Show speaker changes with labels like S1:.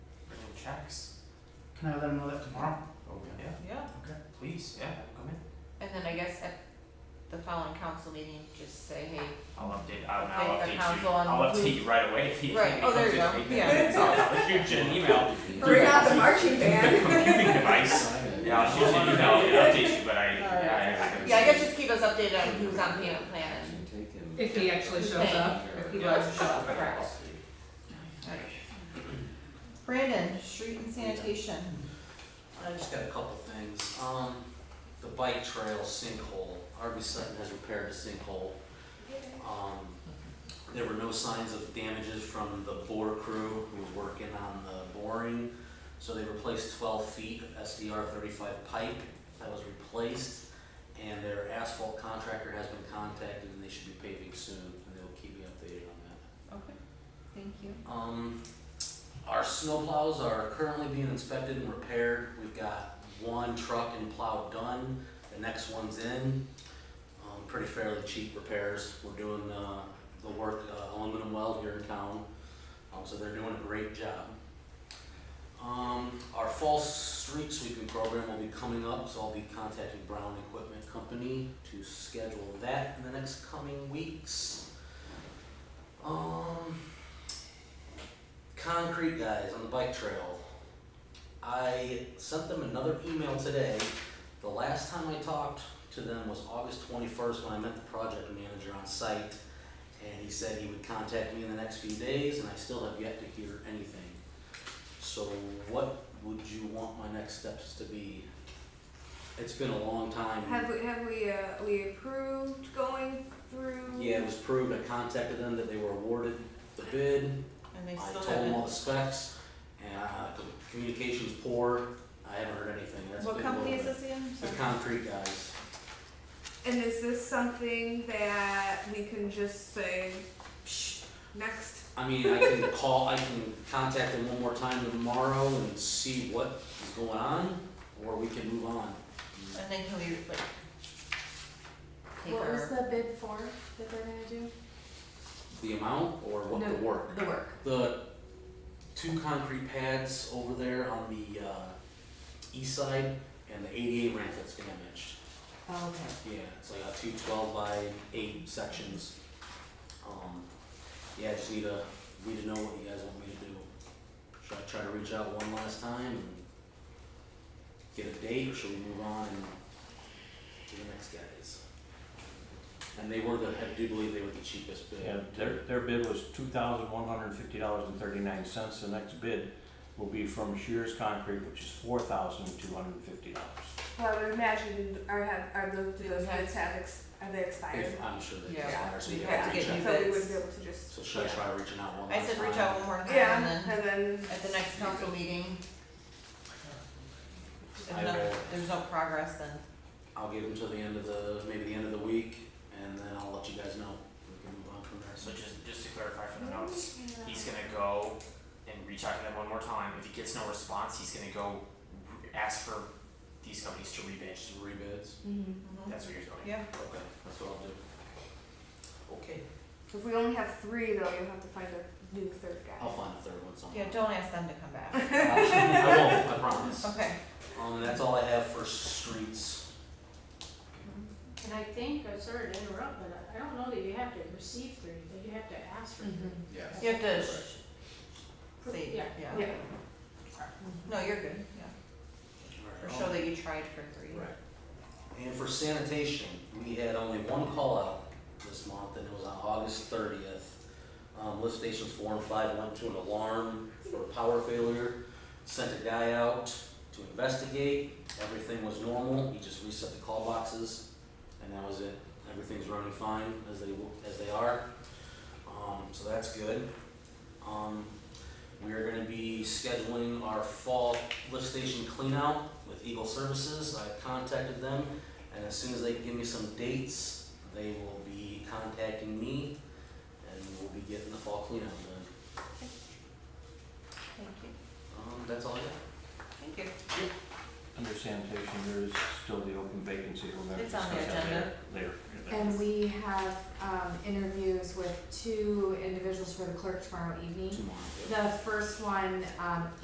S1: Can I let them know that tomorrow?
S2: Okay,
S3: Yeah,
S4: Yeah,
S3: please, yeah, come in.
S4: and then I guess at the following council meeting, just say, hey,
S3: I'll update, I'll,
S4: Okay,
S3: I'll
S4: the
S3: update you,
S4: council on
S3: I'll
S4: who-
S3: update you right away if he, if
S4: Right,
S3: he
S4: oh, there
S3: comes
S4: you
S3: in
S4: go,
S3: and
S4: yeah.
S3: makes I'll, I'll shoot you an email.
S5: Bring out the
S3: Yeah.
S5: marching
S3: The
S5: band.
S3: computing device, yeah, I'll shoot you an email and update you, but I,
S4: Alright.
S3: I, I.
S4: yeah, I guess just Mm-hmm. keep us updated on who's on payment plan and
S6: If he actually shows up, if he does show up.
S4: correct. Brandon, street and sanitation.
S7: I just got a couple things. Um, the bike trail sinkhole, Harvey Sutton has repaired the sinkhole. Um, there were no signs of damages from the bore crew who was working on the boring. So they replaced twelve feet of SDR thirty-five pipe that was replaced. And their asphalt contractor has been contacted and they should be paving soon and they'll keep me updated on that.
S4: Okay, thank you.
S7: Um, our snowplows are currently being inspected and repaired. We've got one truck and plow done, the next one's in. Um, pretty fairly cheap repairs. We're doing, uh, the work, uh, aluminum weld here in town. Um, so they're doing a great job. Um, our fall street sweeping program will be coming up, so I'll be contacting Brown Equipment Company to schedule that in the next coming weeks. Um, concrete guys on the bike trail. I sent them another email today. The last time I talked to them was August twenty-first when I met the project manager on site. And he said he would contact me in the next few days and I still have yet to hear anything. So what would you want my next steps to be? It's been a long time.
S5: Have we, have we, uh, we approved going through?
S7: Yeah, it was proved. I contacted them that they were awarded the bid.
S4: And they
S7: I
S4: still
S7: told them all
S4: haven't,
S7: the specs, and uh, the communication's poor, I haven't heard anything, that's been
S4: what
S7: a little
S4: company is
S7: bit-
S4: this again?
S7: The
S4: Sorry.
S7: concrete guys,
S5: And is this something that we can just say, psh, next?
S7: I mean, I can call, I can contact them one more time tomorrow and see what is going on, or we can move on.
S4: And then can we like take
S8: What was
S4: our,
S8: the bid for that they're gonna do?
S7: The amount or what the
S8: No.
S7: work,
S8: The work.
S7: the two concrete pads over there on the uh, east side, and the eighty-eight ramp that's damaged.
S8: Oh, okay.
S7: Yeah, it's like a two twelve by eight sections. Um, yeah, I just need to, need to know what you guys want me to do. Should I try to reach out one last time and get a date, or should we move on and to the next guys? And they were the, I do believe they were the cheapest bid.
S9: And their, their bid was two thousand one hundred and fifty dollars and thirty-nine cents. The next bid will be from Shears Concrete, which is four thousand two hundred and fifty dollars.
S5: Well, I would imagine, or have, are those, do those
S4: Have-
S5: bids have, ex- are they expired?
S7: If, I'm sure they
S4: Yeah,
S7: expire, so
S4: we
S7: you
S5: have
S7: have to
S5: to
S7: reach out.
S4: get new
S5: So we
S4: bids.
S5: would be able to just,
S7: So should I
S4: Yeah.
S7: try reaching out one last
S4: I
S7: time?
S4: said reach out one more time and
S5: yeah,
S4: then
S5: and then,
S4: at the next council meeting.
S7: I
S4: If no,
S7: will.
S4: there's no progress, then
S7: I'll give them till the end of the, maybe the end of the week, and then I'll let you guys know. We can move on from there.
S3: So just, just to clarify for the notes, he's gonna go and reach out to them one more time. If he gets no response, he's gonna go re- ask for these companies to rebid.
S7: Just rebids.
S5: mhm.
S4: mhm.
S3: That's what you're doing.
S4: yeah,
S7: Okay, that's what I'll do. Okay,
S5: if we only have three though, you'll have to find a new third guy.
S7: I'll find a third one somewhere.
S4: yeah, don't ask them to come back.
S7: I won't, I promise.
S4: Okay.
S7: Um, and that's all I have for streets.
S8: And I think, I'm sorry to interrupt, but I I don't know that you have to receive three, but you have to ask for three.
S7: Mm-hmm.
S2: yes.
S4: You have to sh-
S8: Pro-
S4: say,
S8: yeah.
S4: yeah.
S5: Yeah.
S4: No, you're good, yeah. Or
S7: Alright.
S4: show that you tried for three.
S7: Oh. Right. And for sanitation, we had only one call out this month, and it was on August thirtieth. Um, lift stations four and five went to an alarm for a power failure, sent a guy out to investigate, everything was normal, he just reset the call boxes, and that was it. Everything's running fine as they, w- as they are, um, so that's good. Um, we are gonna be scheduling our fall lift station cleanout with Eagle Services. I contacted them, and as soon as they give me some dates, they will be contacting me, and we'll be getting the fall cleanout done.
S4: Thank you.
S7: Um, that's all I got.
S4: Thank you.
S9: Under sanitation, there is still the open vacancy. We're gonna
S4: It's on
S9: discuss
S4: the
S9: that later.
S4: agenda.
S9: Later.
S8: And we have, um, interviews with two individuals for the clerk tomorrow evening.
S7: Tomorrow.
S8: The first one, um,